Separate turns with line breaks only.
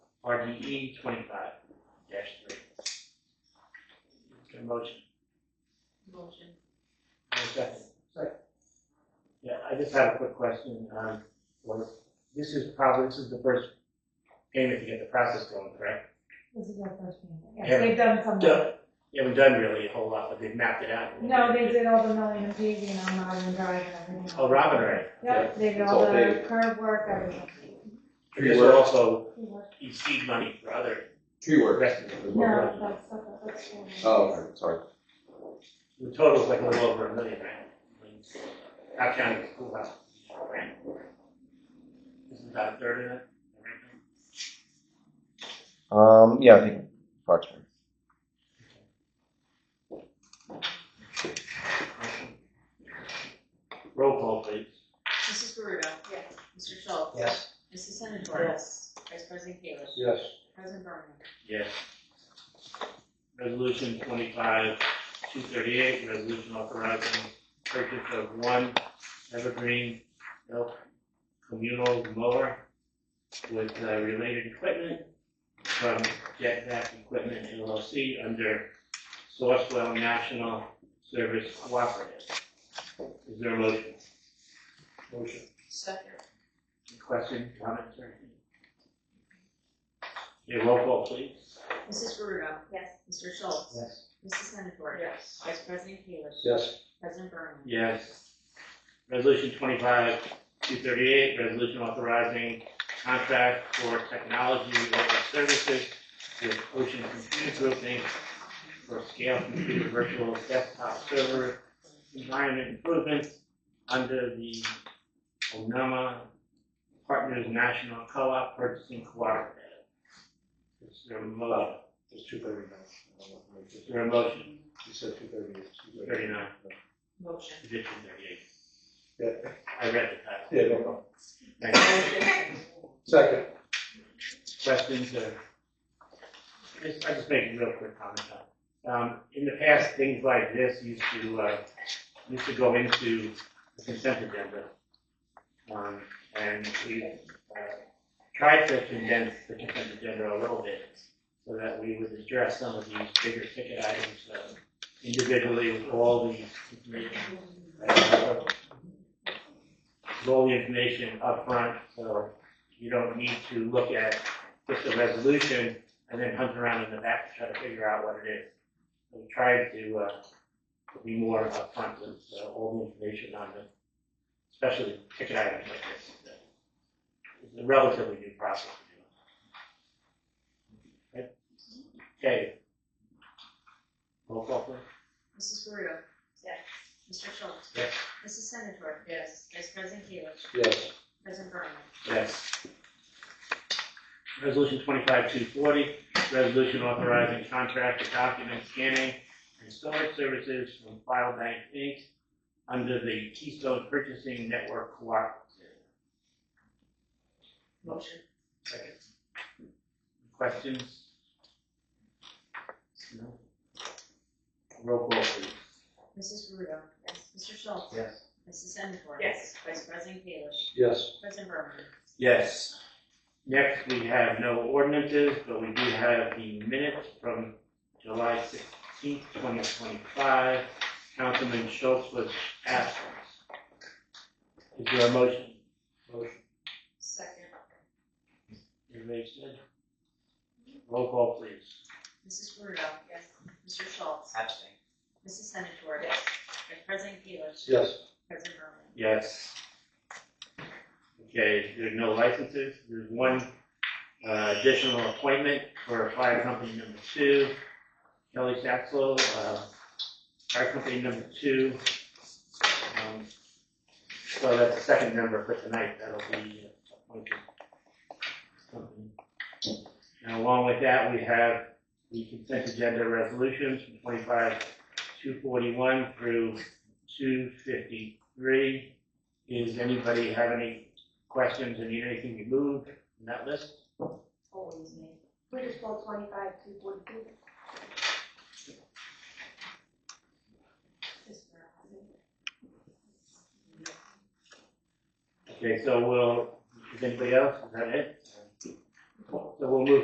RDE E twenty-five dash three. Get a motion,
Motion.
and a second. Second. Yeah, I just have a quick question, um, was, this is probably, this is the first payment to get the process going, correct?
This is our first meeting.
Yeah.
Yes, they've done some.
Yeah. You haven't done really a whole lot, but they've mapped it out.
No, they did all the milling and paving on Marvin Drive and everything.
Oh, Robin, right?
Yep, they did
It's
all
all
the
paved.
curb work, everything.
I guess we're also, you seed money for other
Tree work.
investments.
No, that's, that's. that's-
Oh, okay, sorry.
The total's like a little over a million, right? I mean, Not counting the schoolhouse, right? Isn't about a third of it?
Um, yeah, I think approximately.
Roll call, please.
Mrs. Gurudo. Yes. Mr. Schultz.
Yes.
Mrs. Senator. Yes. Vice President Keilish.
Yes.
President Berman.
Yes. Resolution twenty-five, two thirty-eight, resolution authorizing purchase of one evergreen elk communal mower with uh, related equipment from Jetback Equipment LLC under Sourcewell National Service Cooperative. Is there a motion? Motion.
Second.
Question, comments, or anything? Okay, roll call, please.
Mrs. Gurudo.
Yes.
Mr. Schultz.
Yes.
Mrs. Senator. Yes. Vice President Keilish.
Yes.
President Berman.
Yes. Resolution twenty-five, two thirty-eight, resolution authorizing contract for technology-related services with Ocean Computer Group Inc. for scale computer virtual desktop server environment improvements under the Onama Partners National Co-op Purchasing Cooperative. Is there a motion?
It's two thirty-nine.
Is there a motion?
You said two thirty-eight.
Thirty-nine.
Motion.
Edition thirty-eight.
Yeah,
I read the
yeah, no problem.
title. Thank you.
Second.
questions or? Just, I just make a real quick comment on. Um, in the past, things like this used to, uh, used to go into the consent agenda. Um, and we, uh, tried to condense the consent agenda a little bit so that we would address some of these bigger ticket items, uh, individually with all the information. uh, with All the information upfront, so you don't need to look at just the resolution and then hunt around in the back to try to figure out what it is. We tried to, uh, to be more upfront with uh, all the information on the, especially ticket items like this. It's a relatively new process to do. Right? Okay. Roll call please.
Mrs. Gurudo.
Yes.
Mr. Schultz.
Yes.
Mrs. Senator. Yes. Vice President Keilish.
Yes.
President Berman.
Yes. Resolution twenty-five two forty, resolution authorizing contract to document scanning and storage services from File Bank Inc. under the Keystone Purchasing Network Cooperative.
Motion.
Second. Questions? No? Roll call please.
Mrs. Gurudo. Yes. Mr. Schultz.
Yes.
Mrs. Senator.
Yes.
Vice President Keilish.
Yes.
President Berman.
Yes. Next, we have no ordinances, but we do have the minutes from July sixteenth, twenty twenty-five. Councilman Schultz was absent. Is there a motion?
Motion.
Second.
Everybody said? Roll call, please.
Mrs. Gurudo. Yes. Mr. Schultz.
Abstain.
Mrs. Senator. Yes. Vice President Keilish.
Yes.
President Berman.
Yes. Okay, there are no licenses. There's one uh, additional appointment for fire company number two, Kelly Saxel, uh, fire company number two. Um, So that's the second member for tonight that'll be appointed. And along with that, we have the consent agenda resolutions from twenty-five, two forty-one through two fifty-three. Does anybody have any questions or need anything removed from that list?
Always me.
We just pulled twenty-five, two forty-two.
Okay, so we'll, is anybody else, is that it? So we'll move